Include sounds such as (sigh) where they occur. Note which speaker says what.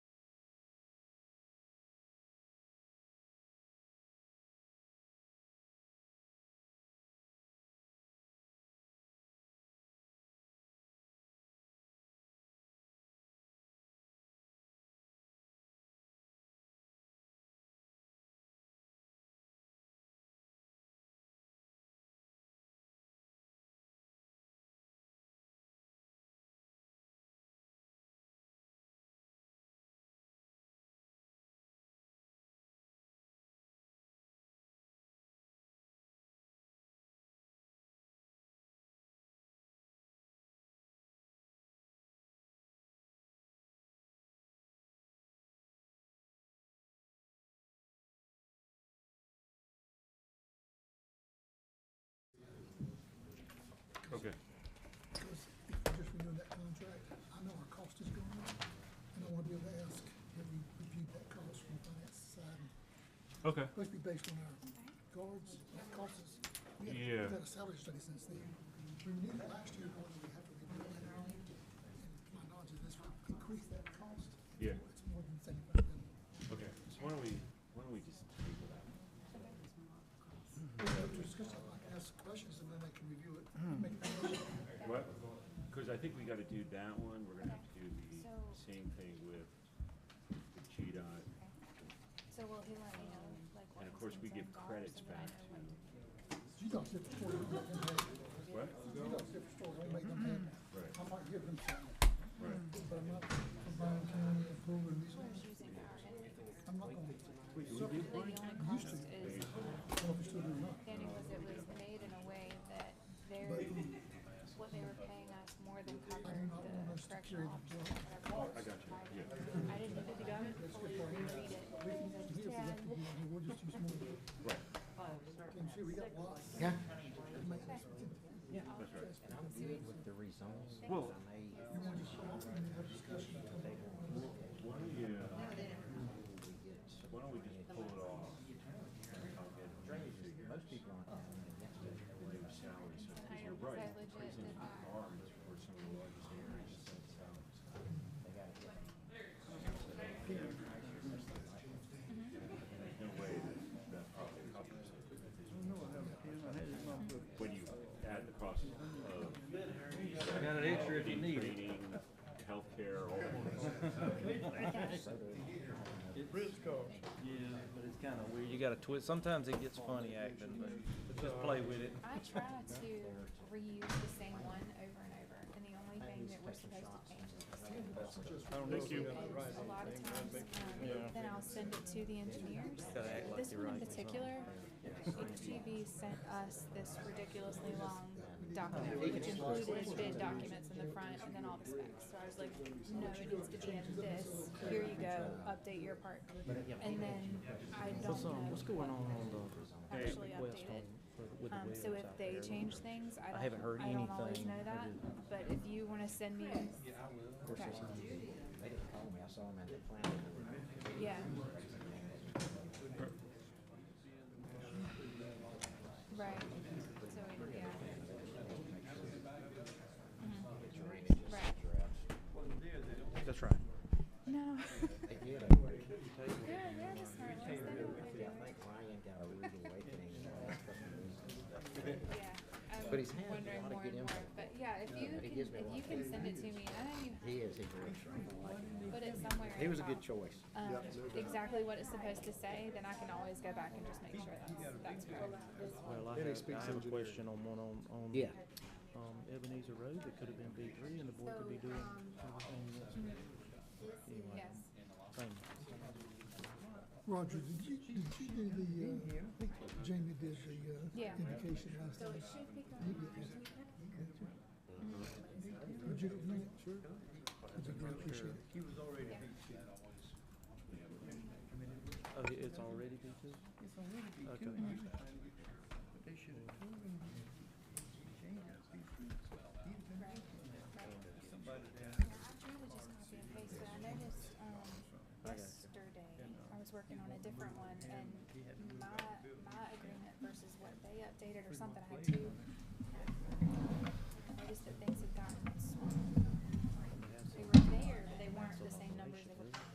Speaker 1: we'll ask, have you reviewed that cost from the finance side?
Speaker 2: Okay.
Speaker 1: Must be based on our guards, our costs. We had-
Speaker 2: Yeah.
Speaker 1: We've had a salary study since then. We knew that last year, going, we have to review it. And to my knowledge, this will increase that cost.
Speaker 2: Yeah.
Speaker 1: It's more than seventy-five million.
Speaker 2: Okay. So why don't we why don't we just table that?
Speaker 1: We have to discuss it, like, ask questions, and then they can review it, make a decision.
Speaker 2: What? Because I think we got to do that one. We're gonna have to do the
Speaker 3: So-
Speaker 2: same thing with the GDOT.
Speaker 3: So will he let me know, like, what
Speaker 2: And of
Speaker 3: his
Speaker 2: course, we give
Speaker 3: needs are in dollars,
Speaker 2: credits
Speaker 3: and then I
Speaker 2: back
Speaker 3: know what
Speaker 2: to-
Speaker 1: You got different story. we don't have it.
Speaker 2: What?
Speaker 1: You got different story, don't make them happy.
Speaker 2: Right.
Speaker 1: I might give them something,
Speaker 2: Right.
Speaker 1: but I'm not combined county and pool and resources.
Speaker 3: Using our end,
Speaker 1: I'm not gonna,
Speaker 3: really the only cost is,
Speaker 1: I don't know if you still do or not.
Speaker 3: Danny, was it was made in a way that their, what they were paying us more than covered the correctional officers.
Speaker 2: I got you. Yeah.
Speaker 3: I didn't even fully read it.
Speaker 1: We can use it if we have to, and we'll just use more.
Speaker 2: Right.
Speaker 1: Can see, we got lots.
Speaker 4: Yeah.
Speaker 1: It might- You
Speaker 2: That's right.
Speaker 4: And I'm good with the rezones.
Speaker 2: Well-
Speaker 4: I may-
Speaker 1: want to show up and have discussion.
Speaker 2: Why don't you,
Speaker 4: we get some-
Speaker 2: why don't we just pull it off?
Speaker 4: Drainage is- most people aren't having it against it.
Speaker 2: Salary, so,
Speaker 3: And I,
Speaker 2: because you're
Speaker 3: was I
Speaker 2: right.
Speaker 3: legit did not,
Speaker 2: Ours were some of the largest areas in salaries.
Speaker 4: They gotta get it.
Speaker 2: There's no way that that probably covers it. When you add the cost of. I got an extra if you need. Training, healthcare, all of it. (laughs)
Speaker 5: It is cost. Yeah, but it's kinda weird. You gotta twist, sometimes it gets funny acting, but just play with it.
Speaker 3: I try to reuse the same one over and over, and the only thing that we're supposed to change is the student.
Speaker 5: I don't know if you
Speaker 3: And a lot of times, um, then I'll send it to the engineers.
Speaker 5: Gotta act like
Speaker 3: This
Speaker 5: you're
Speaker 3: one in
Speaker 5: right.
Speaker 3: particular, HGV sent us this ridiculously long document, which included bid documents in the front and then all the specs. So I was like, no, it needs to be in this, here you go, update your part. And then I don't
Speaker 5: What's, um, what's
Speaker 3: know
Speaker 5: going on on the
Speaker 3: actually
Speaker 5: west
Speaker 3: updated.
Speaker 5: on, with the
Speaker 3: Um,
Speaker 5: wheels
Speaker 3: so if
Speaker 5: out
Speaker 3: they
Speaker 5: there?
Speaker 3: change things, I don't,
Speaker 5: haven't heard
Speaker 3: I don't always
Speaker 5: anything.
Speaker 3: know
Speaker 5: I
Speaker 3: that,
Speaker 5: didn't-
Speaker 3: but if you wanna send me,
Speaker 4: Of course,
Speaker 3: Okay.
Speaker 4: that's not- they didn't call me. I saw them at the planning board.
Speaker 3: yeah. Right, so, it- yeah. Mhm. Right,
Speaker 5: That's right.
Speaker 3: no. (laughs)
Speaker 4: They did.
Speaker 3: They're,
Speaker 4: I
Speaker 3: they're the smart ones, they know what they're doing.
Speaker 4: think Ryan got a rude awakening in the last couple of weeks.
Speaker 3: Yeah,
Speaker 4: But he's had
Speaker 3: I'm
Speaker 4: a
Speaker 3: wondering
Speaker 4: lot of
Speaker 3: more
Speaker 4: good
Speaker 3: and more,
Speaker 4: info.
Speaker 3: but yeah, if you
Speaker 4: He
Speaker 3: can,
Speaker 4: gives me
Speaker 3: if
Speaker 4: a lot
Speaker 3: you
Speaker 4: of
Speaker 3: can
Speaker 4: good
Speaker 3: send it to me, I know
Speaker 4: He is, he's rich.
Speaker 3: you put it somewhere.
Speaker 4: He
Speaker 3: in
Speaker 4: was a
Speaker 3: the
Speaker 4: good
Speaker 3: file.
Speaker 4: choice.
Speaker 3: um, exactly what it's supposed to say, then I can always go back and just make sure that's, that's right.
Speaker 5: Well, I have, I have a question on one on, on.
Speaker 4: Yeah.
Speaker 5: Um, Ebenezer Road, it could've been B three and the board could be doing everything
Speaker 3: Yes.
Speaker 5: that's thing.
Speaker 1: Roger, did you, did you do the, uh, I think Jamie did the,
Speaker 3: Yeah.
Speaker 1: uh, indication last time.
Speaker 3: So it should be
Speaker 1: You
Speaker 3: going
Speaker 1: did
Speaker 3: next
Speaker 1: that.
Speaker 3: week.
Speaker 1: Would you do it? Sure. I appreciate it.
Speaker 5: Oh, it- it's already B two? Okay.
Speaker 3: Mm. I tried to just copy and paste, but I noticed, um, yesterday, I was working on a different one, and my, my agreement versus what they updated or something, I had two. I noticed that things had gotten swapped